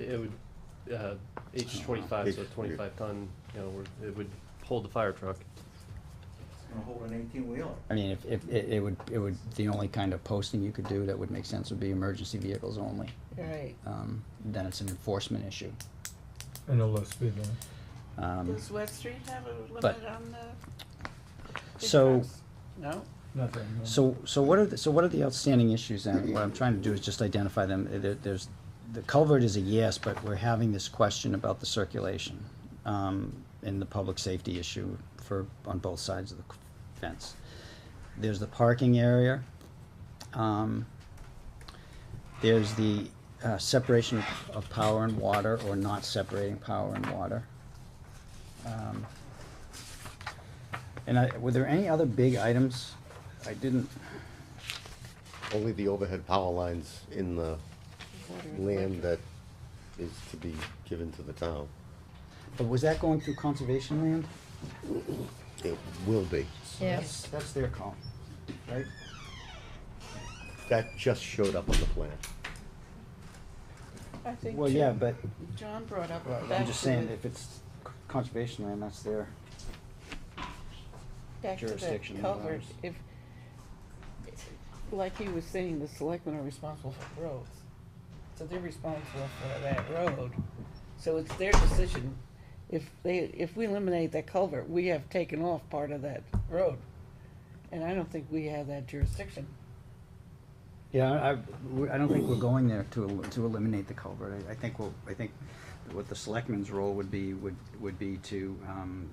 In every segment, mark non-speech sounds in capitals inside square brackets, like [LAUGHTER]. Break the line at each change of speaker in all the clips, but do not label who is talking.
It would, uh, H twenty-five, so
H, yeah.
twenty-five ton, you know, we're- it would hold the fire truck.
It's gonna hold an eighteen wheeler.
I mean, if, if, it it would, it would, the only kind of posting you could do that would make sense would be emergency vehicles only.
Right.
Um, then it's an enforcement issue.
I know less speed limit.
Um,
Does West Street have a
But-
limit on the? big
So-
trucks? No?
Nothing. no.
So, so what are, the- so what are the outstanding issues then? What I'm trying to do is just identify them. There, there's, the culvert is a yes, but we're having this question about the circulation, um, and the public safety issue for, on both sides of the fence. There's the parking area, um, there's the, uh, separation of- of power and water, or not separating power and water. Um, And I, were there any other big items? I didn't,
Only the overhead power lines in the land that is to be given to the town.
But was that going through conservation land?
It will be.
Yes. That's their call, right?
That just showed up on the plan.
I think
Well, yeah,
Jim-
but
John brought up
I'm
back
just
to
saying,
the,
if it's c- conservation land, that's their,
back to the
jurisdiction of
culvert,
ours.
if, like he was saying, the selectmen are responsible for roads. So they're responsible for that road, so it's their decision. If they, if we eliminate that culvert, we have taken off part of that road. And I don't think we have that jurisdiction.
yeah, I, I- we- I don't think we're going there to, el- to eliminate the culvert. I, I think, we'll- I think what the selectmen's role would be, would, would be to, um,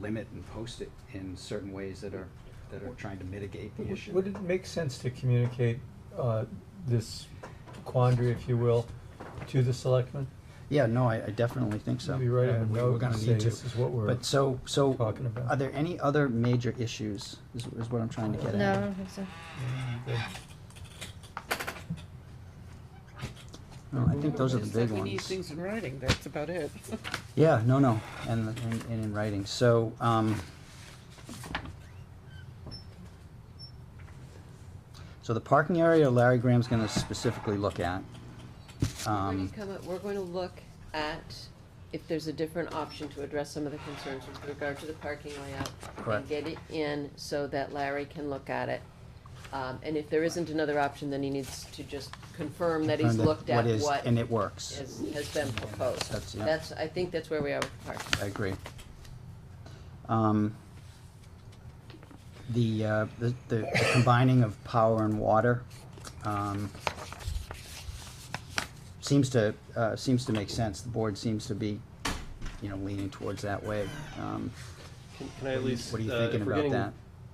limit and post it in certain ways that are, that are trying to mitigate the
Would-
issue.
Would it make sense to communicate uh, this quandary, if you will, to the selectmen?
Yeah, no, I, I definitely think so.
Maybe write a
Yeah, we-
note
We're gonna
and say
need to.
this is what we're
But so, so,
talking about.
are there any other major issues, is, is what I'm trying to get at?
No, I don't think so.
No, Oh, I think those are the
It's like
big
We need
ones.
things in writing, that's about it. [LAUGHS]
Yeah, no, no, and, and, and in writing, so, um. So the parking area Larry Graham's gonna specifically look at.
We're gonna
Um,
come up, we're going to look at if there's a different option to address some of the concerns with regard to the parking layout.
Correct.
And get it in so that Larry can look at it. Um, and if there isn't another option, then he needs to just confirm that he's
and
looked at
is-
what
And
has,
it works,
has been proposed.
That's- yeah.
That's, I think that's where we are with the parking.
I agree. Um, the, uh, the, the combining of power and water, um, seems to, uh, seems to make sense, the board seems to be, you know, leaning towards that way, um,
Can can I
What
at
are you-
least, uh,
what are you
if
thinking
we're
about
getting
that?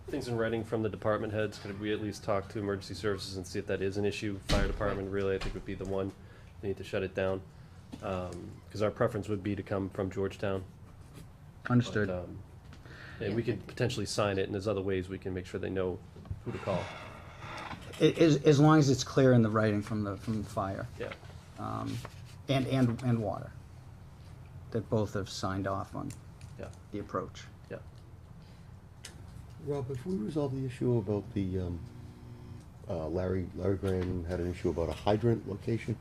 things in writing from the department heads, could we at least talk to emergency services and see if that is an issue? Fire department really, I think would be the one, they need to shut it down. Um, cause our preference would be to come from Georgetown. but,
understood.
um, And we could potentially sign it and there's other ways we can make sure they know who to call,
I- As, as long as it's clear in the writing from the, from the fire,
yeah.
um, and, and, and water, that both have signed off on
Yeah.
the approach.
Rob, if we resolve the issue about the, um, uh, Larry, Larry Graham had an issue about a hydrant location.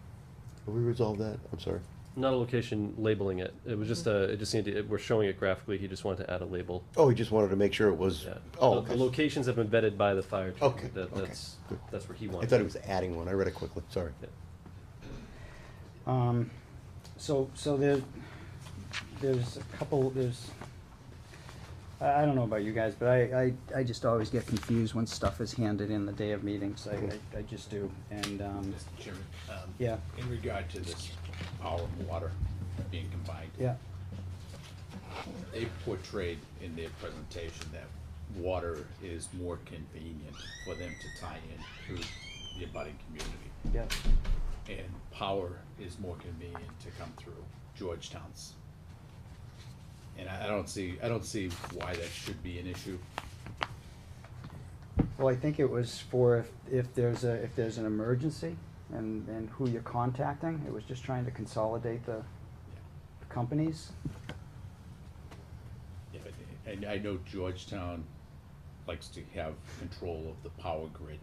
Have we resolved that? I'm sorry.
Not a location labeling it, it was just a, it just needed, it- we're showing it graphically, he just wanted to add a label,
Oh, he just wanted to make sure it was,
yeah. The-
oh,
The
okay.
locations have been vetted by the fire chief,
Okay,
that,
okay,
that's,
good.
that's where he
I
wanted.
thought
it.
he was adding one. I read it quickly, sorry.
Um, so, so there, there's a couple, there's, I, I don't know about you guys, but I, I, I just always get confused when stuff is handed in the day of meetings, I, I, I just do, and, um,
Mr. Chairman, um,
yeah,
in regard to this power and water being combined,
yeah,
they portrayed in their presentation that water is more convenient for them to tie in through the abutting community.
yeah,
And power is more convenient to come through Georgetown's. And I, I don't see, I don't see why that should be an issue.
well, I think it was for if, if there's a, if there's an emergency, and, and who you're contacting, it was just trying to consolidate the the companies,
Yeah, but- And I know Georgetown likes to have control of the power grid,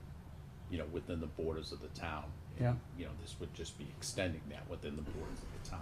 you know, within the borders of the town.
Yeah.
you know, this would just be extending that within the borders of the town.